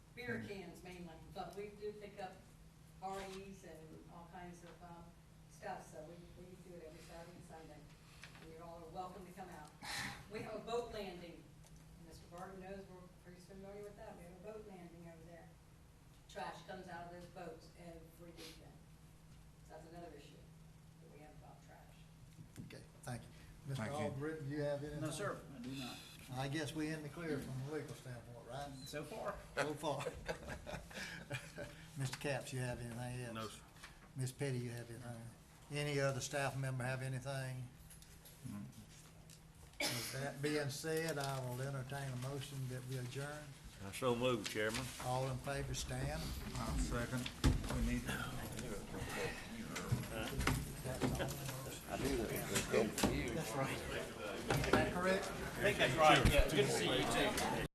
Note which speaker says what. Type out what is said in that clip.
Speaker 1: beer cans mainly, but we do pick up REs and all kinds of, um, stuff, so we, we do it every Saturday and Sunday. And you're all are welcome to come out. We have a boat landing, and Mr. Barton knows, we're pretty familiar with that, we have a boat landing over there. Trash comes out of those boats every weekend. So That's another issue that we have about trash.
Speaker 2: Okay, thank you.
Speaker 3: Thank
Speaker 2: Mr.
Speaker 3: you.
Speaker 2: Albritton, you have anything?
Speaker 4: No, sir, I do not.
Speaker 2: I guess we in the clear from a legal standpoint, right?
Speaker 4: So far,
Speaker 2: So far. Mr. Capps, you have anything else?
Speaker 5: No, sir.
Speaker 2: Ms. Petty, you have anything? Any other staff member have anything? With that being said, I will entertain a motion that we adjourn.
Speaker 5: I so move, Chairman.
Speaker 2: All in favor, stand.
Speaker 3: I'll second. We need,
Speaker 2: Is that correct?
Speaker 4: I think that's right, yeah, good to see you too.